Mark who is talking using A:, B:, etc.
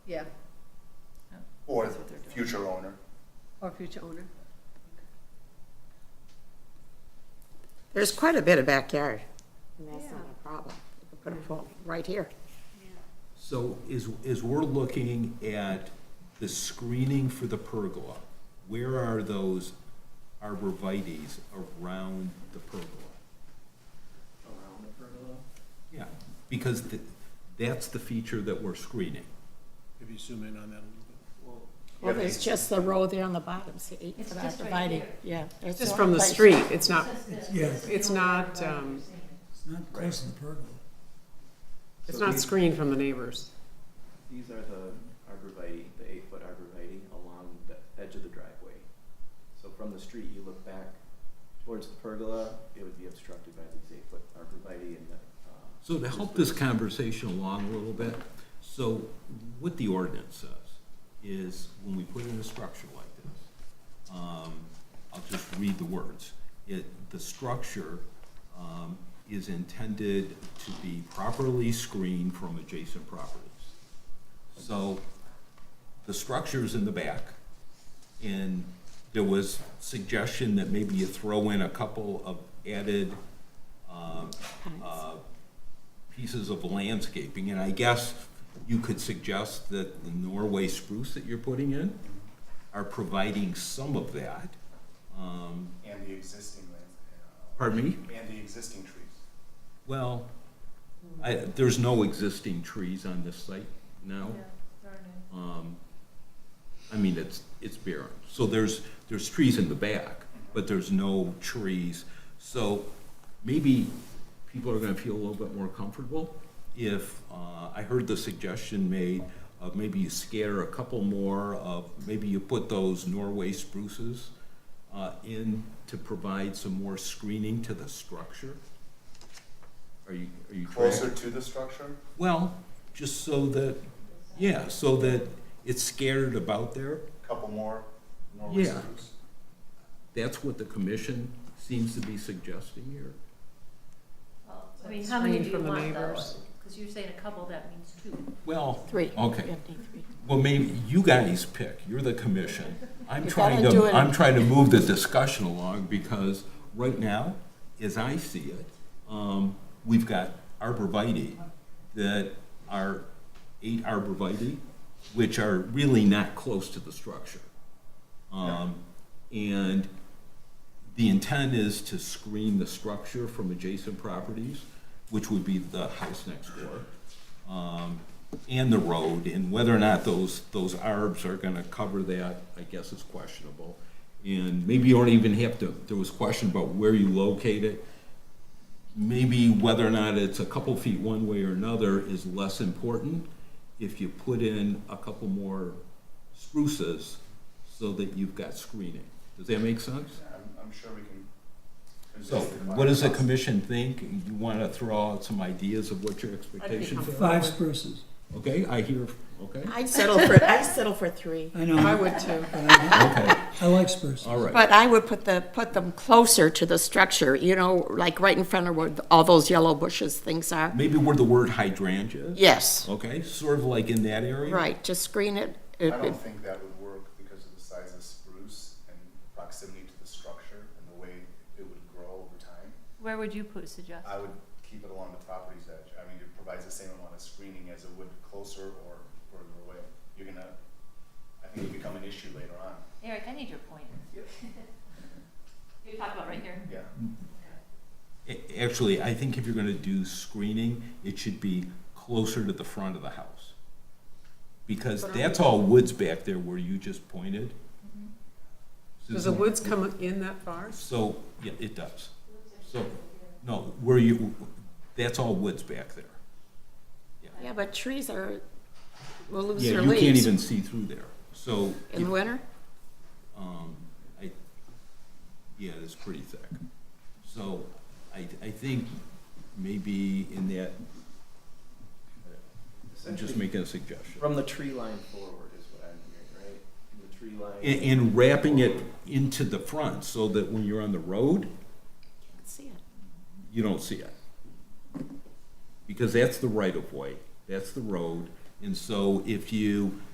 A: yeah,
B: or
C: That's what they're doing.
B: future owner.
A: or future owner.
D: There's quite a bit of backyard, and that's not
A: Yeah.
D: a problem. You can Put a pool right here.
E: So is, is we're looking at the screening for the pergola, where are those arborvitae's around the pergola?
F: around the pergola.
E: Yeah, because th- that's the feature that we're screening.
F: If you zoom in on that a little bit.
B: Well,
D: Well, there's just the row there on the bottom, see,
G: It's
D: for
G: just right
D: dividing,
G: here.
D: yeah. there's
H: Just
D: no
H: from the
D: place.
H: street, it's not,
G: Yeah.
H: it's not, um,
I: It's not close to the pergola.
H: it's
F: So
H: not
F: these-
H: screened from the neighbors.
F: These are the arborvitae, the eight-foot arborvitae along the edge of the driveway. So from the street, you look back towards the pergola, it would be obstructed by these eight-foot arborvitae and the, uh,
E: So to help this conversation along a little bit, so what the ordinance says is when we put in a structure like this, um, I'll just read the words. It, the structure, um, is intended to be properly screened from adjacent properties. So the structure's in the back, and there was suggestion that maybe you throw in a couple of added, um, uh, pieces of landscaping, and I guess you could suggest that the Norway spruce that you're putting in are providing some of that. Um,
B: And the existing lands,
E: Pardon me?
B: uh, and the existing trees.
E: Well, I, there's no existing trees on this site now. Um, I mean, it's, it's barren. So there's, there's trees in the back, but there's no trees. So maybe people are gonna feel a little bit more comfortable if, uh, I heard the suggestion made of maybe you scatter a couple more of, maybe you put those Norway spruces uh, in to provide some more screening to the structure. Are you, are you? tracking?
B: Closer to the structure,
E: Well, just so that, yeah, so that it's scattered about there.
B: couple more Norway
E: Yeah.
B: spruce.
E: That's what the commission seems to be suggesting here.
G: I mean, how many
H: Screened
G: do you
H: from the
G: want though?
H: neighbors.
G: Because you're saying a couple, that means two.
E: Well,
D: Three.
E: Okay.
D: You have to do three.
E: well, maybe you guys pick, you're the commission. I'm
D: You
E: trying
D: gotta do
E: to,
D: it.
E: I'm trying to move the discussion along because right now, as I see it, um, we've got arborvitae that are eight arborvitae, which are really not close to the structure. Um, and the intent is to screen the structure from adjacent properties, which would be the house next door, um, and the road, and whether or not those, those arbs are gonna cover that, I guess is questionable. And maybe you don't even have to, there was question about where you locate it. Maybe whether or not it's a couple feet one way or another is less important if you put in a couple more spruces so that you've got screening. Does that make sense?
B: Yeah, I'm, I'm sure we can. convince
E: So
B: the
E: what does the
B: client.
E: commission think? You want to throw out some ideas of what your expectations are?
I: Five spruces.
E: Okay, I hear, okay,
D: I'd settle for, I'd settle for three,
I: I
H: I
I: know,
H: would too.
I: but I
E: okay,
I: I like spruces.
E: all right.
D: but I would put the, put them closer to the structure, you know, like right in front of where all those yellow bushes things are.
E: Maybe where the word hydrangea is?
D: Yes,
E: Okay, sort of like in that area?
D: right, just screen it.
B: I don't think that would work because of the size of spruce and proximity to the structure and the way it would grow over time.
C: Where would you put, suggest?
B: I would keep it along the property's edge. I mean, it provides the same amount of screening as it would closer or further away. You're gonna, I think it'll become an issue later on.
C: Eric, I need your pointer.
B: Yep.
C: You talk about right here.
B: Yeah,
E: A- Actually, I think if you're going to do screening, it should be closer to the front of the house. Because that's all woods back there where you just pointed.
D: Mm-hmm.
H: Does the
E: Susan?
H: woods come in that far?
E: So, yeah, it does. So, no, where you, that's all woods back there.
D: Yeah, but trees are, will lose
E: Yeah,
D: their
E: you can't
D: leaves
E: even see through there. So,
D: in the winter.
E: um, I, yeah, it's pretty thick. So I, I think maybe in that, I'm just
F: Essentially,
E: making a suggestion.
F: From the tree line forward is what I'm hearing, right? From the tree line.
E: And, and wrapping it into the front so that when you're on the road,
D: See it.
E: you don't see it. Because that's the right of way, that's the road, And so if you